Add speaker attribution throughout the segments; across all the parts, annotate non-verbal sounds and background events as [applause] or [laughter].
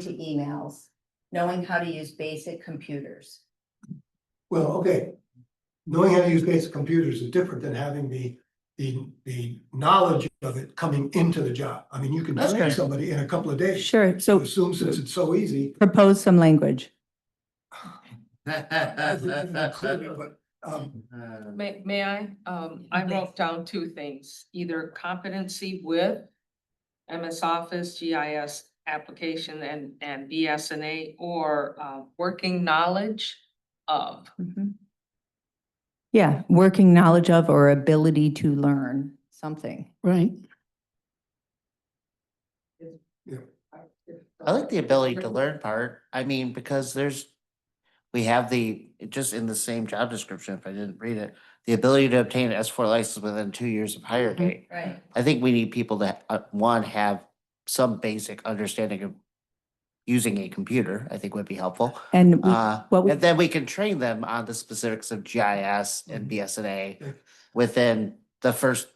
Speaker 1: to emails, knowing how to use basic computers.
Speaker 2: Well, okay. Knowing how to use basic computers is different than having the, the, the knowledge of it coming into the job. I mean, you can
Speaker 3: That's
Speaker 2: train
Speaker 3: good.
Speaker 2: somebody in a couple of days.
Speaker 4: Sure, so
Speaker 2: Assume since it's so easy.
Speaker 4: propose some language.
Speaker 2: But, um,
Speaker 3: Well,
Speaker 5: May, may I? Um, I wrote down two things, either competency with MS Office, GIS application and, and BSNA, or, uh, working knowledge of.
Speaker 4: Mhm. Yeah, working knowledge of or ability to learn something.
Speaker 6: Right,
Speaker 3: I like the ability to learn part. I mean, because there's, we have the, just in the same job description, if I didn't read it, the ability to obtain an S four license within two years of hire
Speaker 6: Mhm.
Speaker 3: date.
Speaker 1: Right.
Speaker 3: I think we need people that, uh, one, have some basic understanding of using a computer, I think would be helpful.
Speaker 4: And we-
Speaker 3: Uh,
Speaker 4: what we-
Speaker 3: and then we can train them on the specifics of GIS and
Speaker 2: Mhm. Yeah.
Speaker 3: BSNA within the first,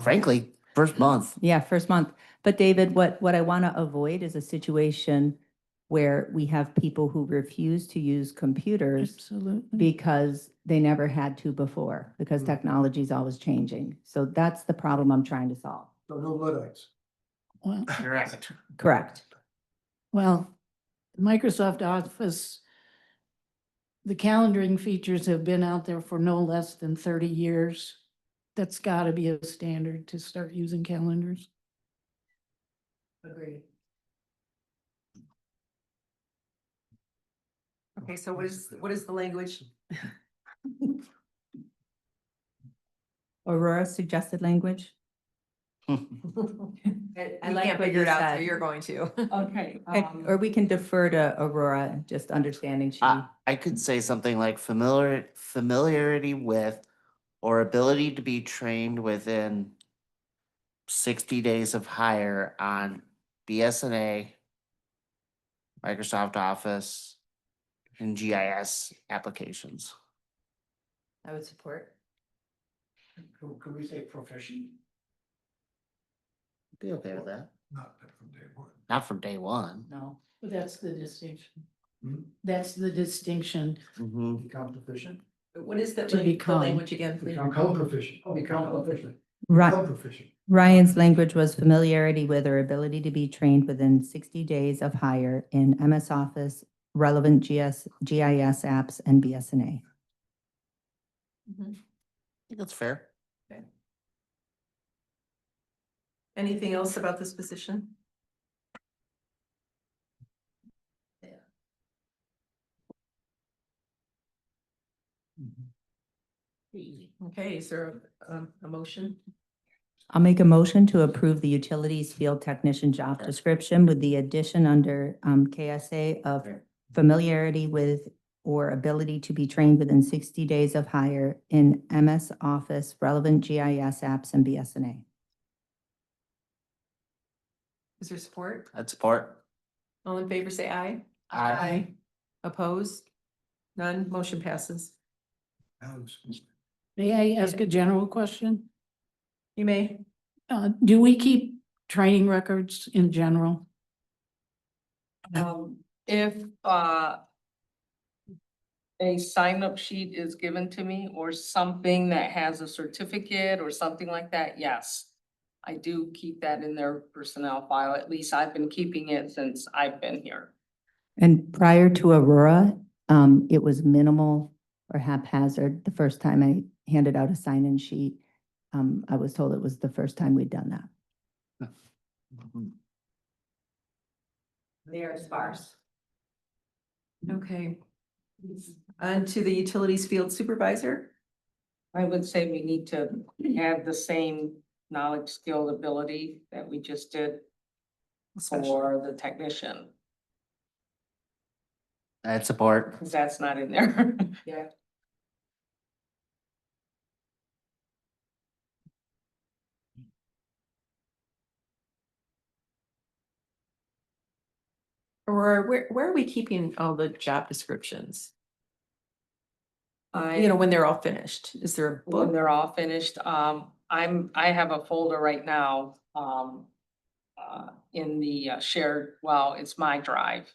Speaker 3: frankly, first month.
Speaker 4: yeah, first month. But David, what, what I want to avoid is a situation where we have people who refuse to use computers
Speaker 6: absolutely.
Speaker 4: because they never had to before, because
Speaker 2: Mm.
Speaker 4: technology is always changing. So that's the problem I'm trying to solve.
Speaker 2: so no Luddites.
Speaker 6: Well,
Speaker 3: Correct.
Speaker 4: Correct.
Speaker 6: well, Microsoft Office, the calendaring features have been out there for no less than thirty years. That's gotta be a standard to start using calendars.
Speaker 1: Agreed.
Speaker 7: Okay, so what is, what is the language?
Speaker 4: Aurora suggested language? I
Speaker 7: We
Speaker 4: like
Speaker 7: can't
Speaker 4: what
Speaker 7: figure
Speaker 4: you
Speaker 7: it out,
Speaker 4: said.
Speaker 7: so you're going to. [laughs]
Speaker 5: Okay.
Speaker 4: Okay,
Speaker 5: um,
Speaker 4: Or we can defer to Aurora, just understanding she.
Speaker 3: Uh, I could say something like familiar, familiarity with or ability to be trained within sixty days of hire on BSNA, Microsoft Office, and GIS applications.
Speaker 1: I would support.
Speaker 2: Can can we say proficient?
Speaker 3: Be okay with that.
Speaker 2: Not that from day one.
Speaker 3: Not from day one.
Speaker 4: No.
Speaker 6: But that's the distinction.
Speaker 2: Hmm?
Speaker 6: That's the distinction.
Speaker 3: Mhm.
Speaker 2: Become proficient.
Speaker 7: What is the,
Speaker 6: To
Speaker 7: lang- the
Speaker 6: become.
Speaker 7: language again? please?
Speaker 2: Become proficient. Become proficient.
Speaker 4: Right,
Speaker 2: Become proficient.
Speaker 4: Ryan's language was familiarity with or ability to be trained within sixty days of hire in MS Office, relevant GS, GIS apps and BSNA.
Speaker 7: Mhm.
Speaker 3: I think that's fair.
Speaker 7: Anything else about this position? Okay, is there a, um, a motion?
Speaker 4: I'll make a motion to approve the utilities field technician job description with the addition under um KSA of familiarity with or ability to be trained within sixty days of hire in MS Office, relevant GIS apps and BSNA.
Speaker 7: Is there support?
Speaker 3: I'd support.
Speaker 7: All in favor, say aye.
Speaker 3: Aye.
Speaker 7: Opposed? None, motion passes.
Speaker 2: Sounds-
Speaker 6: May I ask a general question?
Speaker 7: You may.
Speaker 6: Uh, do we keep training records in general?
Speaker 5: Um, if, uh, a sign-up sheet is given to me or something that has a certificate or something like that, yes. I do keep that in their personnel file. At least I've been keeping it since I've been here.
Speaker 4: And prior to Aurora, um, it was minimal or haphazard. The first time I handed out a sign-in sheet, um, I was told it was the first time we'd done that.
Speaker 1: They are sparse.
Speaker 7: Okay. On to the utilities field supervisor.
Speaker 5: I would say we need to have the same knowledge, skill, ability that we just did for the technician,
Speaker 3: I'd support.
Speaker 5: because that's not in there. [laughs]
Speaker 1: Yeah.
Speaker 7: Or where, where are we keeping all the job descriptions? You
Speaker 5: I,
Speaker 7: know, when they're all finished, is there a
Speaker 5: when
Speaker 7: book?
Speaker 5: they're all finished, um, I'm, I have a folder right now, um, uh, uh, in the uh, shared, well, it's my drive.